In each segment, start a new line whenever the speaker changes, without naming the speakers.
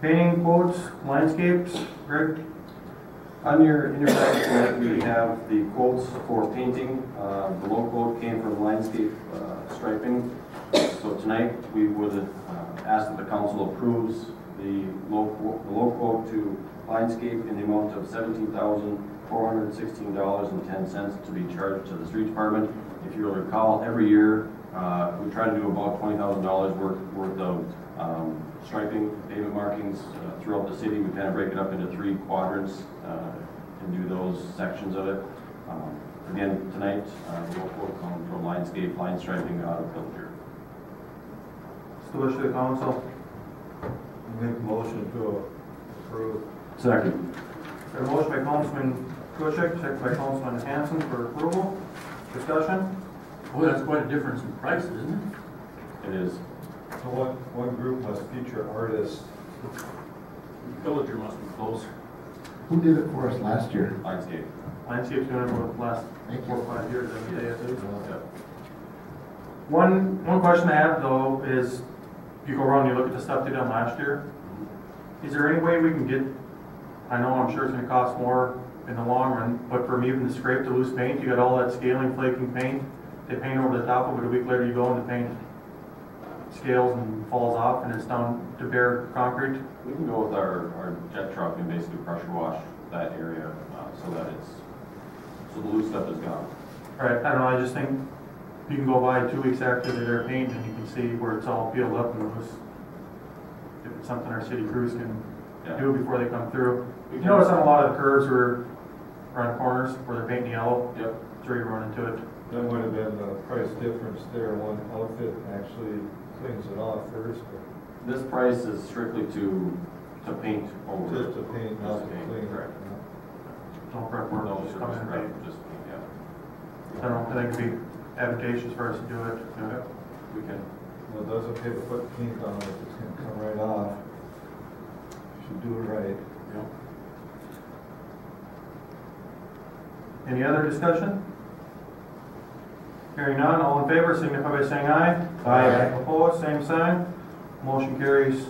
Painting quotes, landscapes, Greg?
On your, in your packet tonight, we have the quotes for painting. Uh, The low quote came from Lionscape uh, Striping. So tonight, we would uh, ask that the council approves the low quote- the low quote to Lionscape in the amount of $17,416.10 to be charged to the street department. If you recall, every year, uh, we try to do about $20,000 worth worth of um, striping, pavement markings uh, throughout the city. We kind of break it up into three quadrants uh, and do those sections of it. Um, Again, tonight, uh, we'll quote on from Lionscape, line striping out of Pilger.
It's the wish of the council.
Make motion to approve.
Second.
Got a motion by Councilman Kuchek, second by Councilman Hanson for approval. Discussion?
Boy, that's quite a difference in price, isn't
It is.
So one, one group must feature artists.
it? Villager must be close.
Who did it for us last year?
Lionscape.
Landscape's doing it for the last
Thank
four
you.
or five years, I would say, at least.
Yep.
One, one question I have though is, you go around and you look at the stuff they done last year,
Mm-hmm.
is there any way we can get, I know I'm sure it's gonna cost more in the long run, but from even the scrape to loose paint, you got all that scaling, flaking paint, they paint over the top of it, a week later you go and the paint scales and falls off and it's down to bare concrete.
We can go with our, our jet truck and basically pressure wash that area uh, so that it's, so the loose stuff is gone.
Right, I don't know, I just think you can go by two weeks after they're painted and you can see where it's all peeled up and loose. If it's something our city crews can
Yeah.
do before they come through.
We
You
can-
notice on a lot of the curves or around corners where they're painting yellow,
Yep.
that's where you run into it.
That might have been the price difference there. One outfit actually cleans it off first, but
This price is strictly to, to paint over.
just to paint, not
Just
to
to paint,
clean.
correct.
No prep work,
No
just come
service,
in and
right,
paint.
just, paint, yeah,
I don't think it'd be advantageous for us to do it.
we can.
Well, it doesn't pay to put paint on it, it's gonna come right off. Should do it right.
Any other discussion? Hearing none, all in favor, signify by saying aye.
Aye.
Opposed, same sign. Motion carries.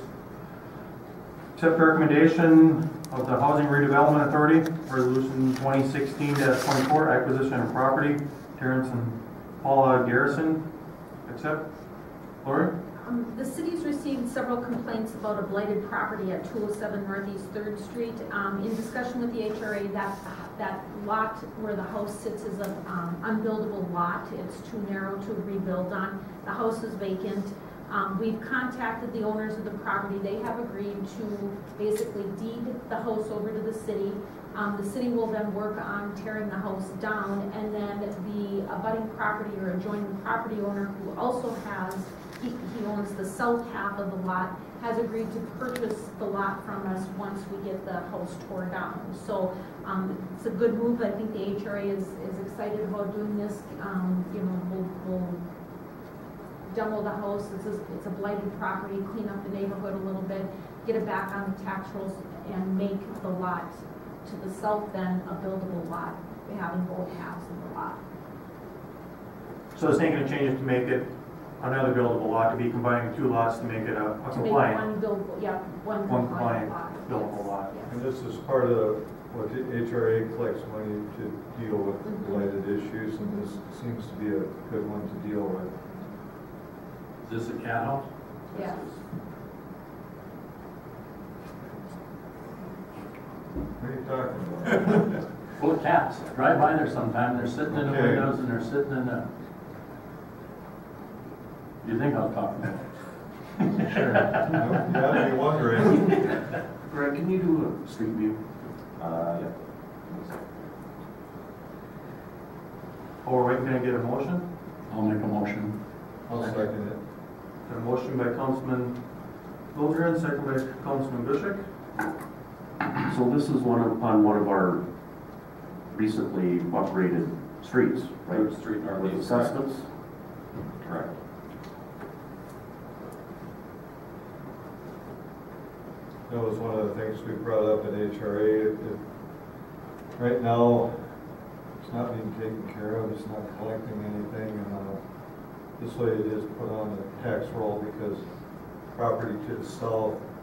Accept recommendation of the Housing Redevelopment Authority, Resolution 2016-24, acquisition of property, Terrence and Paula Garrison. Accept. Lori?
Um, The city's received several complaints about a blighted property at 207 Northeast Third Street. Um, In discussion with the HRA, that, that lot where the house sits is an unbuildable lot. It's too narrow to rebuild on. The house is vacant. Um, We've contacted the owners of the property. They have agreed to basically deed the house over to the city. Um, The city will then work on tearing the house down, and then the abutting property or adjoining property owner who also has he, he owns the south half of the lot, has agreed to purchase the lot from us once we get the house tore down. So, um, it's a good move, I think the HRA is, is excited about doing this, um, you know, we'll, we'll demo the house, it's a, it's a blighted property, clean up the neighborhood a little bit, get it back on the tax rolls and make the lot to the south then a buildable lot, We having both halves of the lot.
So it's not going to change it to make it another buildable lot, to be combining two lots to make it a a
To make
compliant.
one buildable, yeah, one
One compliant
compliant lot.
buildable
yes,
lot.
yes.
And this is part of what the HRA collects money to deal with related issues, and this seems to be a good one to deal with.
Is this a cat house?
Yeah.
What are you talking about?
Full of cats. Drive by there sometime, they're sitting in the
Okay.
windows and they're sitting in the... You think I was talking about?
You gotta be wondering.
Greg, can you do a street view? Uh, yeah.
Oh, we're waiting, to get a motion?
I'll make a motion.
I'll second it.
Got a motion by Councilman Bilger, second by Councilman Bishop.
So this is one of- on one of our recently upgraded streets, right?
Third Street
With
Northeast.
assessments?
Correct.
That was one of the things we brought up at HRA. If- if- Right now, it's not being taken care of, it's not collecting anything, and uh, this way it is put on the tax roll because property to the south